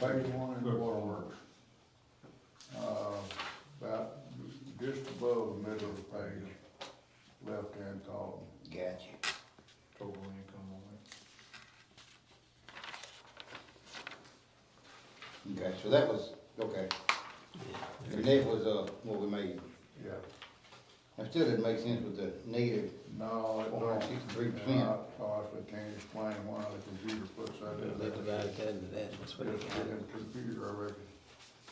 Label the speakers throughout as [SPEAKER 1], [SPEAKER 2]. [SPEAKER 1] Phase one is waterworks. Uh, about just above the middle of the page, left-hand column.
[SPEAKER 2] Gotcha.
[SPEAKER 3] Total income only.
[SPEAKER 2] Okay, so that was, okay. And that was, uh, what we made.
[SPEAKER 1] Yeah,
[SPEAKER 2] That still didn't make sense with the negative
[SPEAKER 1] no, it
[SPEAKER 2] four hundred
[SPEAKER 1] don't.
[SPEAKER 2] sixty-three
[SPEAKER 1] And
[SPEAKER 2] percent.
[SPEAKER 1] I honestly can't explain why the computer puts that in
[SPEAKER 4] They
[SPEAKER 1] there.
[SPEAKER 4] divided that into that, that's what
[SPEAKER 1] It's
[SPEAKER 4] they got.
[SPEAKER 1] in the computer, I reckon.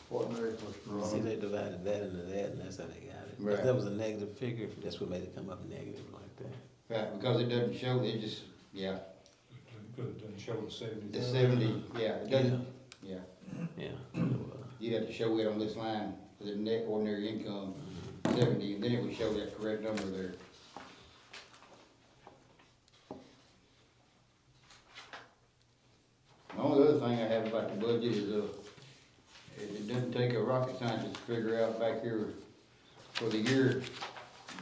[SPEAKER 1] What makes us
[SPEAKER 4] See,
[SPEAKER 1] wrong?
[SPEAKER 4] they divided that into that, and that's how they got it.
[SPEAKER 2] Right.
[SPEAKER 4] If that was a negative figure, that's what made it come up negative like that.
[SPEAKER 2] Right, because it doesn't show, it just, yeah,
[SPEAKER 3] Because it doesn't show the seventy.
[SPEAKER 2] the seventy, yeah, it doesn't, yeah.
[SPEAKER 4] Yeah. So, uh,
[SPEAKER 2] You'd have to show it on this line, for the net ordinary income, seventy, and then it would show that correct number there. The only other thing I have about the budget is, uh, it it doesn't take a rocket scientist to figure out back here for the year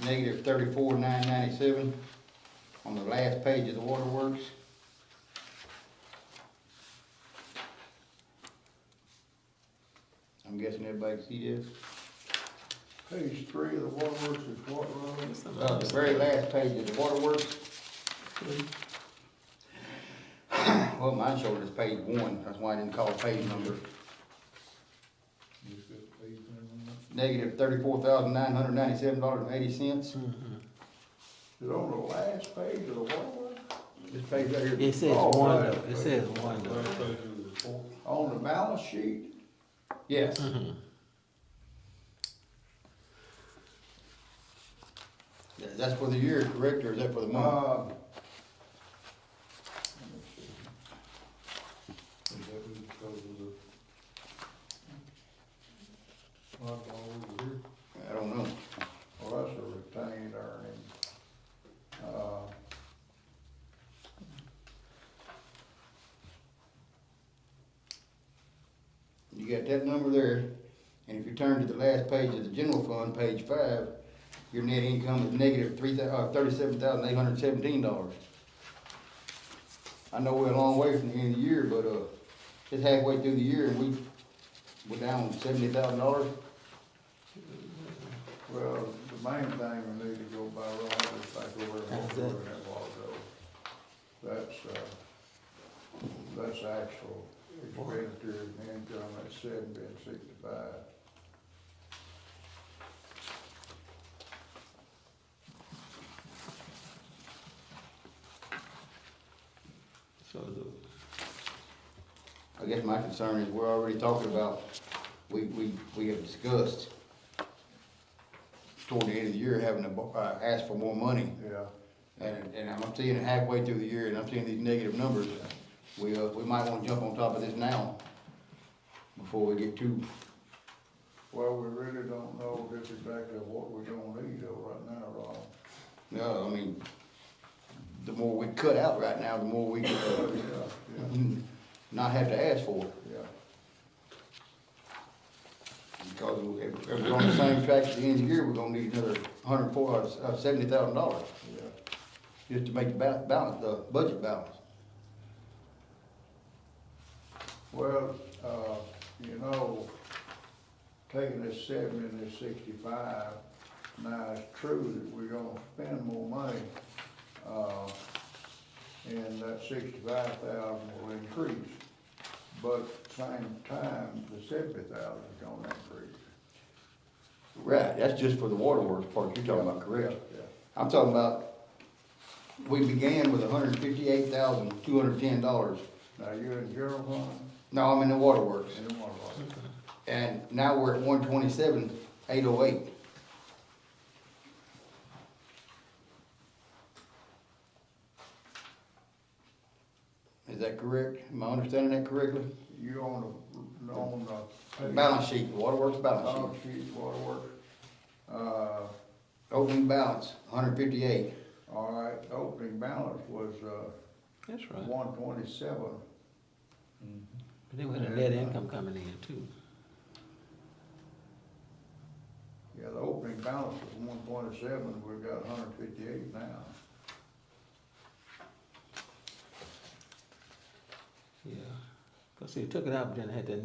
[SPEAKER 2] negative thirty-four nine ninety-seven on the last page of the waterworks. I'm guessing everybody can see this.
[SPEAKER 1] Page three of the waterworks is what, Ron?
[SPEAKER 4] that's not-
[SPEAKER 2] Uh, the very last page of the waterworks. Well, mine showed as page one, that's why I didn't call it page number, negative thirty-four thousand nine hundred ninety-seven dollars and eighty cents.
[SPEAKER 4] Mhm.
[SPEAKER 1] Is it on the last page of the waterworks?
[SPEAKER 2] This page right here.
[SPEAKER 4] It says
[SPEAKER 1] Oh,
[SPEAKER 4] one
[SPEAKER 1] right.
[SPEAKER 4] though, it says one though.
[SPEAKER 3] Last page of the report.
[SPEAKER 1] On the balance sheet?
[SPEAKER 2] Yes,
[SPEAKER 4] Mhm.
[SPEAKER 2] Th- that's for the year, correct, or is that for the
[SPEAKER 1] Uh,
[SPEAKER 2] month?
[SPEAKER 3] Is that because of the? Not all over here.
[SPEAKER 2] I don't know.
[SPEAKER 1] Well, that's a retained earning. Uh,
[SPEAKER 2] You got that number there, and if you turn to the last page of the general fund, page five, your net income is negative three thou, uh, thirty-seven thousand eight hundred seventeen dollars. I know we're a long way from the end of the year, but, uh, it's halfway through the year and we, we're down seventy thousand dollars.
[SPEAKER 1] Well, the main thing we need to go by, Ron, is back over and
[SPEAKER 4] That's
[SPEAKER 1] over
[SPEAKER 4] it.
[SPEAKER 1] in that log That's, uh, that's actual expenditure and income at seventy and sixty-five.
[SPEAKER 4] So, the-
[SPEAKER 2] I guess my concern is we're already talking about, we, we, we have discussed toward the end of the year having to, bo- uh, ask for more money.
[SPEAKER 1] Yeah,
[SPEAKER 2] And, and I'm seeing it halfway through the year, and I'm seeing these negative numbers. We, uh, we might wanna jump on top of this now, before we get too,
[SPEAKER 1] well, we really don't know just exactly what we're gonna need though right now, Ron.
[SPEAKER 2] no, I mean, the more we cut out right now, the more we, could,
[SPEAKER 1] Yeah,
[SPEAKER 2] uh,
[SPEAKER 1] yeah,
[SPEAKER 2] not have to ask for it.
[SPEAKER 1] yeah.
[SPEAKER 2] Because if, if we're on the same track at the end of the year, we're gonna need another hundred and four, uh, seventy thousand dollars,
[SPEAKER 1] Yeah,
[SPEAKER 2] just to make the ba- balance, the budget balance.
[SPEAKER 1] well, uh, you know, taking this seventy and this sixty-five, now it's true that we're gonna spend more money, uh, and that sixty-five thousand will increase. But same time, the seventy thousand is gonna increase.
[SPEAKER 2] Right, that's just for the waterworks part you're talking about, correct? I'm talking about, we began with hundred and fifty-eight thousand, two hundred and ten dollars.
[SPEAKER 1] Now, you're in general fund,
[SPEAKER 2] No, I'm in the waterworks,
[SPEAKER 1] and you want to,
[SPEAKER 2] and now we're at one twenty-seven, eight oh eight. Is that correct? Am I understanding that correctly?
[SPEAKER 1] you on the, on the.
[SPEAKER 2] Balance sheet, waterworks balance
[SPEAKER 1] Balance
[SPEAKER 2] sheet,
[SPEAKER 1] uh, sheet, waterworks, uh,
[SPEAKER 2] opening balance, hundred fifty-eight.
[SPEAKER 1] All right, the opening balance was, uh,
[SPEAKER 4] that's right.
[SPEAKER 1] one twenty-seven.
[SPEAKER 4] But then we had a net income coming in too.
[SPEAKER 1] Yeah, the opening balance was one twenty-seven, we've got hundred fifty-eight now.
[SPEAKER 4] Yeah, 'Cause Cause see, it took it out, but then it had that